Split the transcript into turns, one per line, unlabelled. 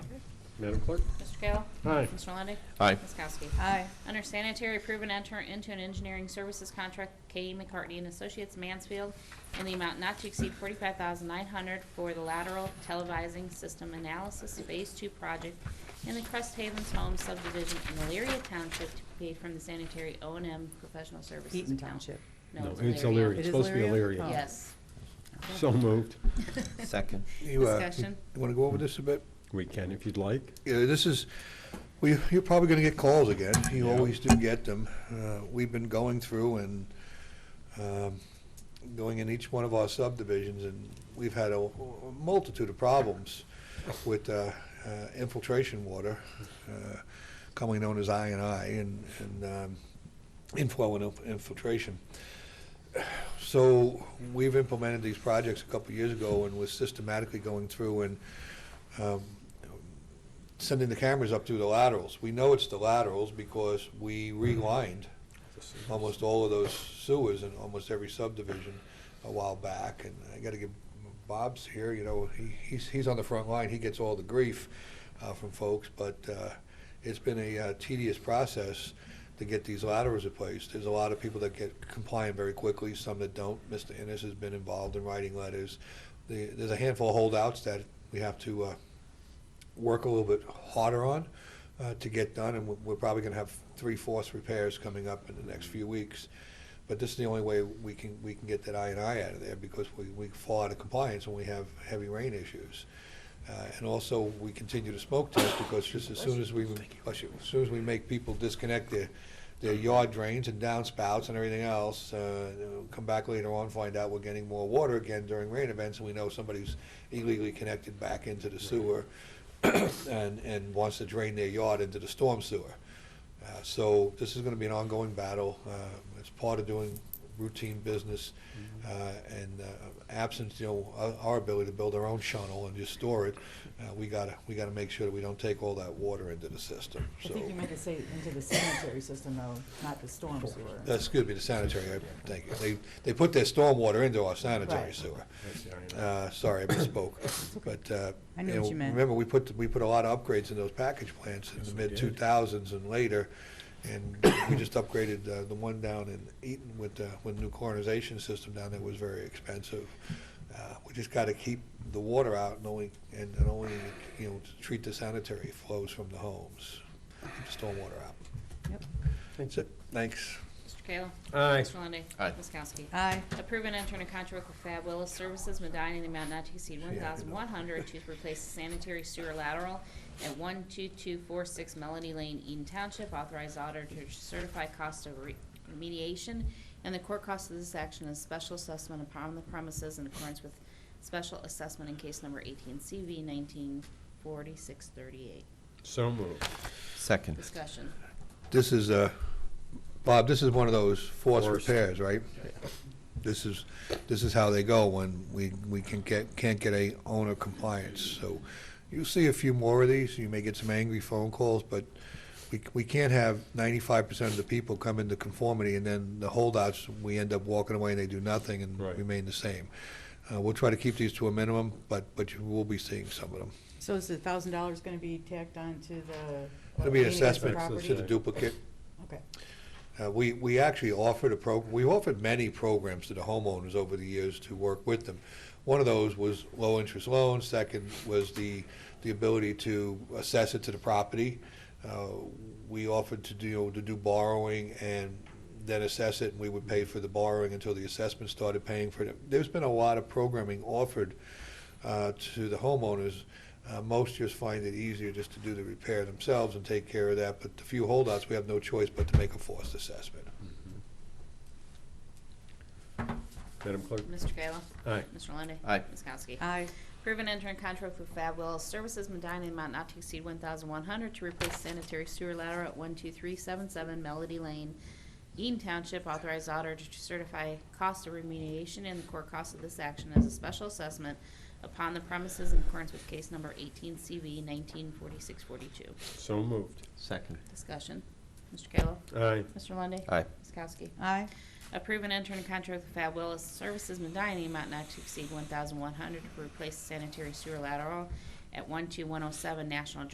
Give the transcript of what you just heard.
Madam Clerk?
Mr. Kayla?
Aye.
Mr. Lundey?
Aye.
Ms. Kowski?
Aye.
Under sanitary, approve and enter into an engineering services contract with K.E. McCartney and Associates Mansfield in the amount not to exceed forty-five thousand nine hundred for the lateral televising system analysis Phase Two project in the Crest Havens Home subdivision in Elyria Township to be paid from the sanitary O and M professional services
Eaton
account.
Township.
No,
It's Elyria,
It
it's
is
supposed to be
Elyria?
Elyria.
Oh.
Yes.
So moved.
Second.
You, uh,
Discussion.
You want to go over this a bit?
We can if you'd like.
Yeah, this is, we, you're probably going to get calls again. You always do get them. Uh, We've been going through and um, going in each one of our subdivisions, and we've had a a multitude of problems with uh, uh, infiltration water, uh, commonly known as I and I, and and, um, inflow and inf- infiltration. So we've implemented these projects a couple of years ago, and we're systematically going through and um, sending the cameras up through the laterals. We know it's the laterals because we relined almost all of those sewers in almost every subdivision a while back. And I gotta give, Bob's here, you know, he, he's, he's on the front line, he gets all the grief, uh, from folks, but, uh, it's been a uh, tedious process to get these laterals replaced. There's a lot of people that get compliant very quickly, some that don't. Mr. Innes has been involved in writing letters. The- There's a handful of holdouts that we have to, uh, work a little bit harder on uh, to get done, and we're- we're probably going to have three-fourths repairs coming up in the next few weeks. But this is the only way we can, we can get that I and I out of there, because we, we fall out of compliance when we have heavy rain issues. Uh, And also, we continue to smoke test, because just as soon as we, bless you, as soon as we make people disconnect their, their yard drains and downspouts and everything else, uh, they'll come back later on, find out we're getting more water again during rain events, and we know somebody's illegally connected back into the sewer and, and wants to drain their yard into the storm sewer. Uh, So this is gonna be an ongoing battle. Uh, It's part of doing routine business uh, and uh, absence, you know, our- our ability to build our own shuttle and just store it. uh, We gotta, we gotta make sure that we don't take all that water into the system,
I
so.
think you meant to say into the sanitary system though, not the storm sewer.
That's, excuse me, the sanitary, I think. They, they put their stormwater into our sanitary
Right.
sewer. Uh, Sorry, I misspoke. But, uh,
I knew
you
what
know,
you meant.
remember, we put, we put a lot of upgrades in those package plants in the
we did.
mid-2000s and later, and we just upgraded uh, the one down in Eaton with, uh, with new coronization system down there was very expensive. Uh, We just got to keep the water out and only, and and only, you know, treat the sanitary flows from the homes, keep the stormwater out.
Yep.
That's it. Thanks.
Mr. Kayla?
Aye.
Mr. Lundey?
Aye.
Ms. Kowski?
Aye.
Approve and enter in a contract with Fab Willis Services Medina in the amount not to exceed one thousand one hundred to replace the sanitary sewer lateral at one two two four six Melody Lane, Eden Township. Authorize auditor to certify cost of re- remediation. And the court cost of this action is special assessment upon the premises in accordance with special assessment in case number eighteen CV nineteen forty-six thirty-eight.
So moved.
Second.
Discussion.
This is, uh, Bob, this is one of those forced
Forced.
repairs, right? This is, this is how they go when we, we can get, can't get a owner compliance. So you'll see a few more of these, you may get some angry phone calls, but we, we can't have ninety-five percent of the people come into conformity and then the holdouts, we end up walking away and they do nothing and
Right.
remain the same. Uh, We'll try to keep these to a minimum, but, but you will be seeing some of them.
So is the thousand dollars gonna be tacked on to the?
It'll be an
remaining of the
assessment
property?
to the duplicate.
Okay.
Uh, We, we actually offered a program, we offered many programs to the homeowners over the years to work with them. One of those was low-interest loans, second was the, the ability to assess it to the property. Uh, We offered to do, to do borrowing and then assess it, and we would pay for the borrowing until the assessment started paying for it. There's been a lot of programming offered uh, to the homeowners. Uh, Most just find it easier just to do the repair themselves and take care of that, but the few holdouts, we have no choice but to make a forced assessment.
Mm-hmm. Madam Clerk?
Mr. Kayla?
Aye.
Mr. Lundey?
Aye.
Ms. Kowski?
Aye.
Approve and enter in contract with Fab Willis Services Medina in amount not to exceed one thousand one hundred to replace sanitary sewer lateral at one two three seven seven Melody Lane, Eaton Township. Authorized auditor to certify cost of remediation and the core cost of this action as a special assessment upon the premises in accordance with case number eighteen CV nineteen forty-six forty-two.
So moved.
Second.
Discussion. Mr. Kayla.
Aye.
Mr. Lundey.
Aye.
Ms. Kowski.
Aye.
Approve and enter in contract with Fab Willis Services Medina, in the amount not to exceed one thousand one hundred to replace sanitary sewer lateral at one two one oh seven National